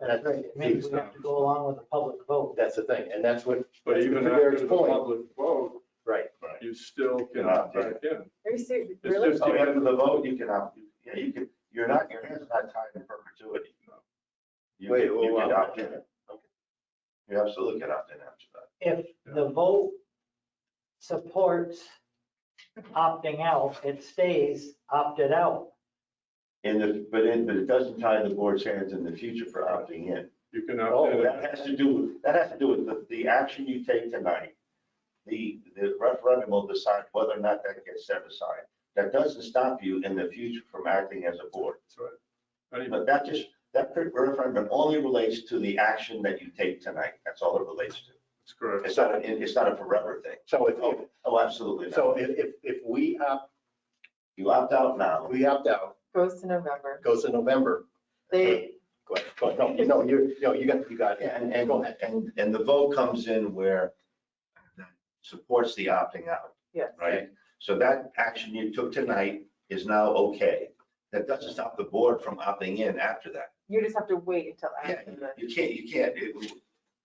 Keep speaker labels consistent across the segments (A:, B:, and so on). A: And I think,
B: Maybe we have to go along with a public vote.
A: that's the thing, and that's what,
C: But
A: That's
C: even
A: to
C: after
A: Derek's
C: the
A: point.
C: public vote,
A: right.
C: you still can
D: Yeah.
C: opt back in.
E: Are you serious?
C: It's
E: Really?
C: just-
D: At the end of the vote, you can, opt- yeah, you can, you're not, your hands not tied in perpetuity. You
A: Wait,
D: can, you
A: well,
D: can
A: well,
D: opt in. You absolutely can opt in after that.
B: If the vote supports opting out, it stays opted out.
D: And if, but it, but it doesn't tie the board's hands in the future for opting in.
C: You can opt
D: Oh,
C: in.
D: that has to do with, that has to do with the, the action you take tonight. The, the referendum will decide whether or not that gets set aside. That doesn't stop you in the future from acting as a board.
C: That's right. I mean,
D: But that just, that referendum only relates to the action that you take tonight. That's all it relates to.
C: That's correct.
D: It's not, a- it's not a forever thing.
A: So if,
D: Oh, oh, absolutely. not.
A: so if, if, if we opt,
D: You opt out now.
A: we opt out,
E: Goes to November.
A: goes to November,
E: They,
A: go ahead, go ahead. no, no, you're, no, you got, you got,
D: And,
A: and
D: and,
A: go ahead.
D: and, and the vote comes in where that supports the opting out,
E: yes.
D: right? So that action you took tonight is now okay. That doesn't stop the board from opting in after that.
E: You just have to wait until
D: Yeah,
E: after the.
D: you can't, you can't, it-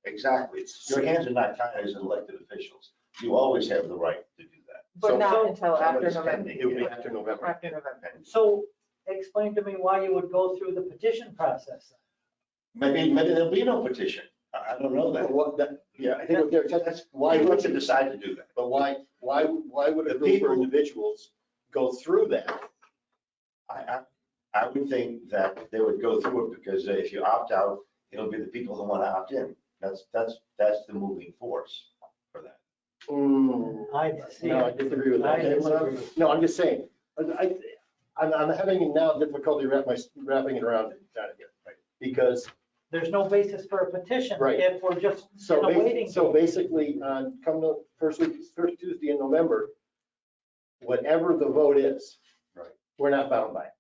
D: exactly. Your hands are not tied as elected officials. You always have the right to do that.
E: But
A: So-
E: not until after
D: Somebody's
E: November,
D: pending
A: It would be
D: it.
A: after November.
E: after November.
D: And
B: So explain to me why you would go through the petition process.
D: Maybe, maybe there'll be no petition. I I don't know that.
A: What, that, yeah, I think what Derek said, that's
D: Why
A: why,
D: would you
A: would-
D: decide to do that?
A: but why, why, why would a
D: The
A: group or
D: people-
A: individuals go through that?
D: I, I, I would think that they would go through it because if you opt out, it'll be the people who want to opt in. That's, that's, that's the moving force for that.
E: Hmm.
B: I see.
A: No, I disagree with
B: I
A: that.
B: disagree.
A: No, I'm just saying, I, I'm, I'm having now difficulty wrap my, wrapping it around it, trying to get, it right? Because
B: There's no basis for a petition
A: Right.
B: if we're just in
A: So,
B: a
A: ba-
B: waiting.
A: so
B: game.
A: basically, on come the first week, first Tuesday in November, whatever the vote is.
D: Right.
A: We're not bound by, it.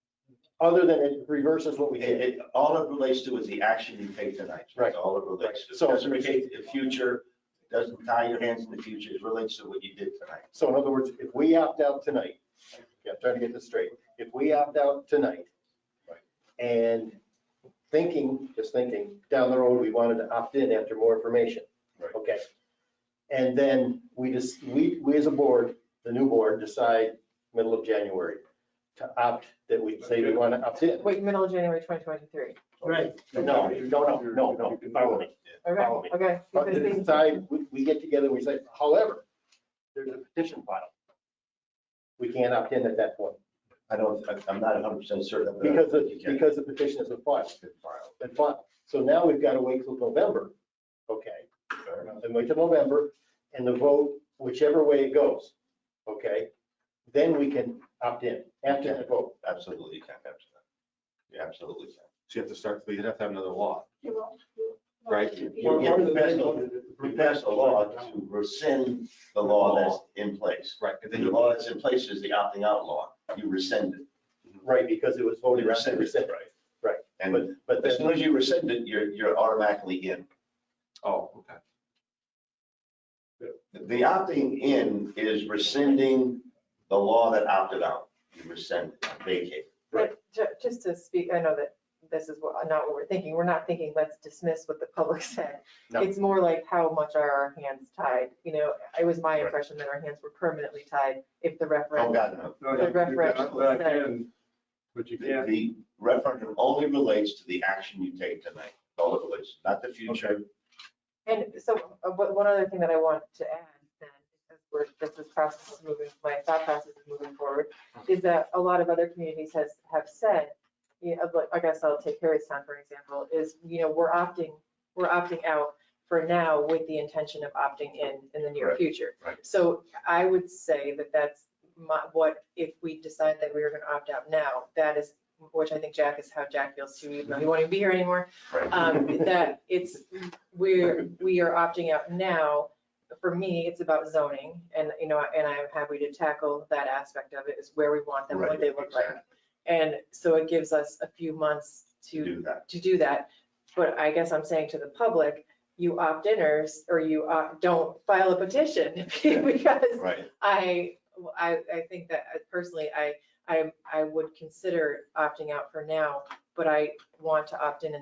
A: other than it reverses what we
D: It,
A: did.
D: it, all it relates to is the action you take tonight.
A: Right.
D: That's all it relates to.
A: So-
D: It Doesn't relate to the future, It doesn't tie your hands in the future, it relates to what you did tonight.
A: So in other words, if we opt out tonight, yeah, I'm trying to get this straight, if we opt out tonight, and thinking, just thinking, down the road, we wanted to opt in after more information.
D: Right.
A: Okay. And then we just, we, we as a board, the new board, decide middle of January to opt, that we say we want to opt in.
E: Wait, middle of January 2023.
B: Right.
A: No, no, no, no, no, follow me. Follow me. Uh,
E: Okay, okay.
A: But
E: because
A: we
E: they-
A: decide, we, we get together, we say, however, there's a petition filed. We can't opt in at that point
D: I don't, I- I'm not hundred percent certain. but I
A: because,
D: think
A: the-
D: Uh, you can.
A: because the petition isn't filed.
D: Good file.
A: And filed. So now we've got to wait till November. Okay,
D: Fair enough.
A: then wait till November and the vote, whichever way it goes. Okay, then we can opt in after that vote.
D: Absolutely, you can, absolutely. You absolutely can.
F: So you have to start, but you'd have to have another law.
D: Right. You you have to pass a- you pass a law to rescind the law that's in place.
F: Right. And
D: The
F: then you
D: law that's in place is the opting out law. You rescind it.
A: Right, because it was voted.
D: You rescind it.
A: But,
D: And
A: but
D: as
A: then,
D: soon as you rescind it, you're, you're automatically in.
F: oh, okay.
D: The opting in is rescinding the law that opted out. You rescind, it, vacate.
E: But ju- just to speak, I know that this is what, not what we're thinking. We're not thinking, let's dismiss what the public said.
A: No.
E: It's more like how much are our hands tied? You know, it was my
D: Right.
E: impression that our hands were permanently tied if the
D: Oh,
E: referendum.
D: God, no.
C: No, you- you can opt back in, But you can't
D: The referendum only relates to the action you take tonight. All it relates, not the future.
E: And so, uh, but one other thing that I want to add then, because we're, this is process is moving, my thought process is moving forward, is that a lot of other communities has, have said, you know, like, I guess I'll take Harrytown, for example, is, you know, we're opting, we're opting out for now with the intention of opting in in the near
D: Right,
E: future.
D: right.
E: So I would say that that's my, what, if we decide that we are gonna opt out now, that is, which I think Jack is how Jack feels too, even though he won't even be here anymore
D: Right.
E: um, that it's, we're, we are opting out now. For me, it's about zoning and, you know, and I'm happy to tackle that aspect of it is where we want them, what
D: Right,
E: they look like.
D: exactly.
E: And so it gives us a few months to,
D: Do that.
E: to do that. But I guess I'm saying to the public, you opt-iners or you opt- don't file a petition because
D: Right.
E: I, I, I think that uh, personally, I, I, I would consider opting out for now, but I want to opt in in